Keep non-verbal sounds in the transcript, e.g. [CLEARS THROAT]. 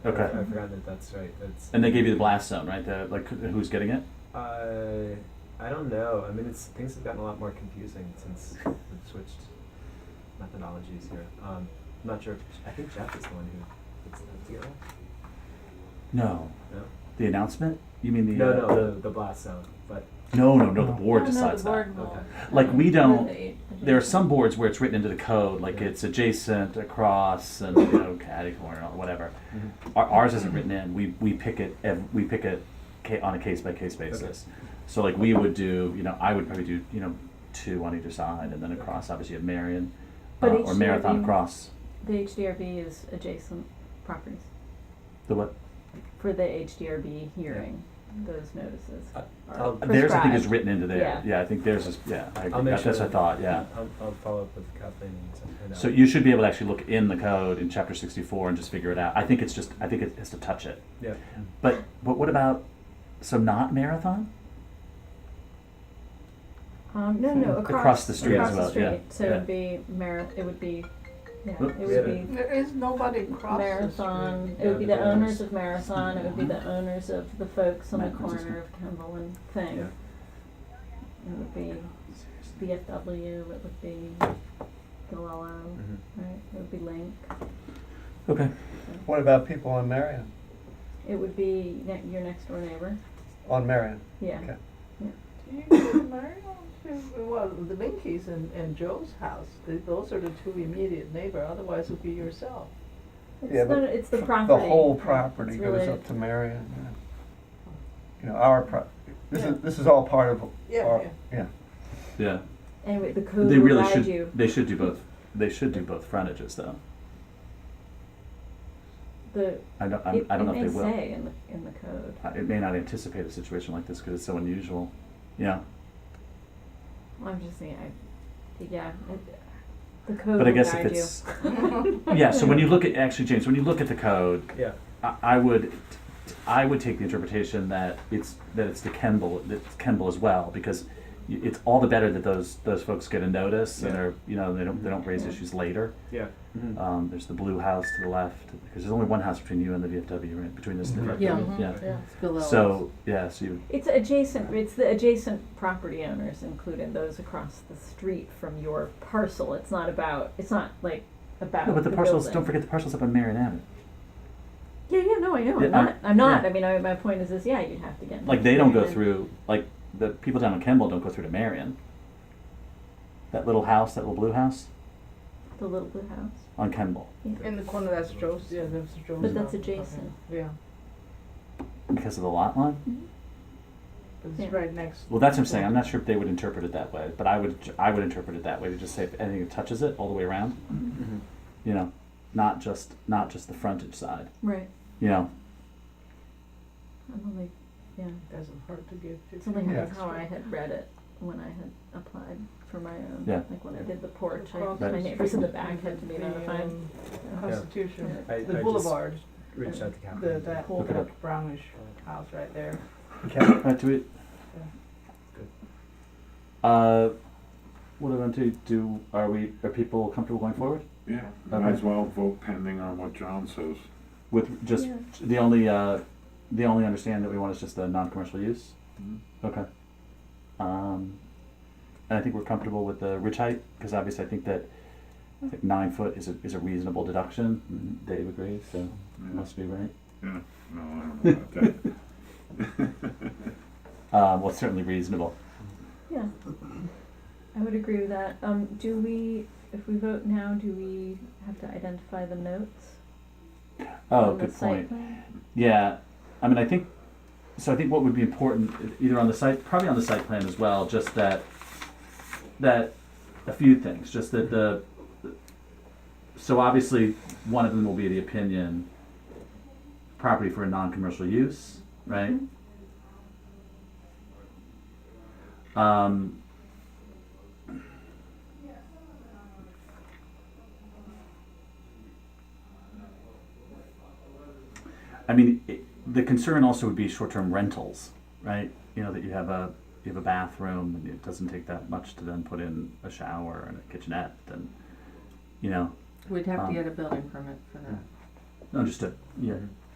Okay. I forgot that that's right. That's And they gave you the blast zone, right? The like who's getting it? Uh, I don't know. I mean, it's things have gotten a lot more confusing since we've switched methodologies here. Um, I'm not sure. If, I think Jeff is the one who puts that together. No. No, The announcement? You mean the no, uh, no, the, the blast sound. But the- no, no, no, The No, board Oh, no, decides the board Okay. will. Like, we Or don't- they- that. There are some boards where it's written into the code, like Yeah. it's adjacent, across, and you know, catty corner, or whatever. Our, ours isn't written in. We we pick it. ev- We pick it ca- on a case by case basis. So like we would do, you know, I would probably do, you know, two on either side, and then across. Obviously, you have Marion uh, But or Marathon HDRB across. The HDRB is adjacent properties The what? for the HDRB hearing, those notices. Uh, are I'll- Theirs I think is prescribed. written into there. Yeah. I think theirs is. Yeah, I agree. I'll make That- that's what sure I thought. Yeah. I'll, I'll follow up with Kathleen. And stuff, and uh, So I'll- you should be able to actually look in the code in chapter sixty-four and just figure it out. I think it's just, I think it has to touch it. yeah. But, but what about, so not marathon? Um, no, no, Across across. the street across as the well, yeah, street. So it yeah. would be Marath, it would be, yeah, Oh, it yeah. would be There is nobody across the Marathon, street. it would be the Yeah, Mm-hmm. the owners of Marathon, it would be the owners of the folks on the Mike, what's his corner of Kimball and Thing. Yeah. It would be BFW, it would be Galello, Mhm. Mm-hmm. right, it would be Link. Okay. What about people on Marion? It would be ne- your next door neighbor, On Marion? yeah. Okay. Do you go to Marion's? Well, the Linkies and, and Joe's house, th- those are the two immediate neighbor, otherwise it would be yourself. It's Yeah, but the, it's the f- property. The whole right, property it's goes related. up to Marion. yeah. You know, our pro, this Yeah. is, this is all part of Yeah, our, yeah. yeah. Yeah, Anyway, the code they will really guide you, should, they should do both, they should do both frontages though. the, I don't, I'm- it, I it don't know if may they will. say in the, in the code. Uh, It may not anticipate a situation like this because it's so unusual. Yeah, I'm just saying, I, yeah, it- the code but I will guess if guide you. [LAUGHS] it's, yeah, so when you look at, actually, James, when you look at the code, Yeah. I, I would, I would take the interpretation that it's that it's to Kemble that it's Kemble as well because y- it's all the better that those those folks get a notice and Yeah. are you know they don't they don't raise Yeah. issues later. Yeah. Mhm. Um, there's the blue house to the left because there's only one house between you and the VFW right between this and the Mm-hmm. Mhm. Yeah. VFW. Yeah. Yeah, it's below us. So yeah, so you It's adjacent, it's the adjacent property owners, including those across the street from your parcel. It's not about, it's not like about no, but the, parcels building. don't forget the parcels up on Marion Avenue. Yeah, yeah, no, I know, Yeah, I'm I'm- not, I'm not, yeah. I mean, I, my point is this, yeah, you'd have to get. Like they don't go notified. through like the people down on Kemble don't go through to Marion. That little house, that little blue house The little blue house. on Kemble. In the corner, that's Joe's, yeah, that's Joe's. But that's house. Okay. adjacent. Yeah, Because of the lot line? Mm-hmm. but Yeah. it's right next. Well, that's what I'm saying. I'm not sure if they would interpret it that way, but I would I would interpret it that way to just say if anything that touches it all the way around, Mhm. you know, not just not just the frontage side, Right. you know. [CLEARS THROAT] I'm only, yeah, Doesn't hurt to give fifteen something like Yeah. that's how I had read it when I had applied for my own. Yeah. Like when I did the porch, I, Across my the neighbors in the street, back had to be the, notified. um, Yeah. Constitution, I, I the just boulevard, reached out to Kathleen. the, that whole Okay. dark brownish house right there. Okay. All right, do we? Good. Uh, what do we want to do? Are we are people comfortable going forward Yeah, Okay. might as well vote pending on what John says. with just Yeah. the only uh, the only understanding that we want is just the non-commercial use? Okay. Um, and I think we're comfortable with the ridge height because obviously I think that I think nine foot is a, is a reasonable deduction. Dave agrees, so it Yeah, must be right. No, I don't [LAUGHS] know about that. Uh, well, it's certainly reasonable. Yeah, I would agree with that. Um, do we, if we vote now, do we have to identify the notes? Oh, on the good point. site plan? Yeah, I mean, I think so. I think what would be important, either on the site, probably on the site plan as well, just that that a few things, just that the so obviously one of them will be the opinion property for a non-commercial use, right? Mm-hmm. Um, I mean, it, the concern also would be short-term rentals, right? You know that you have a you have a bathroom and it doesn't take that much to then put in a shower and a kitchenette and you know We'd have Um, to get a building permit for that. understood. Yeah. Mhm.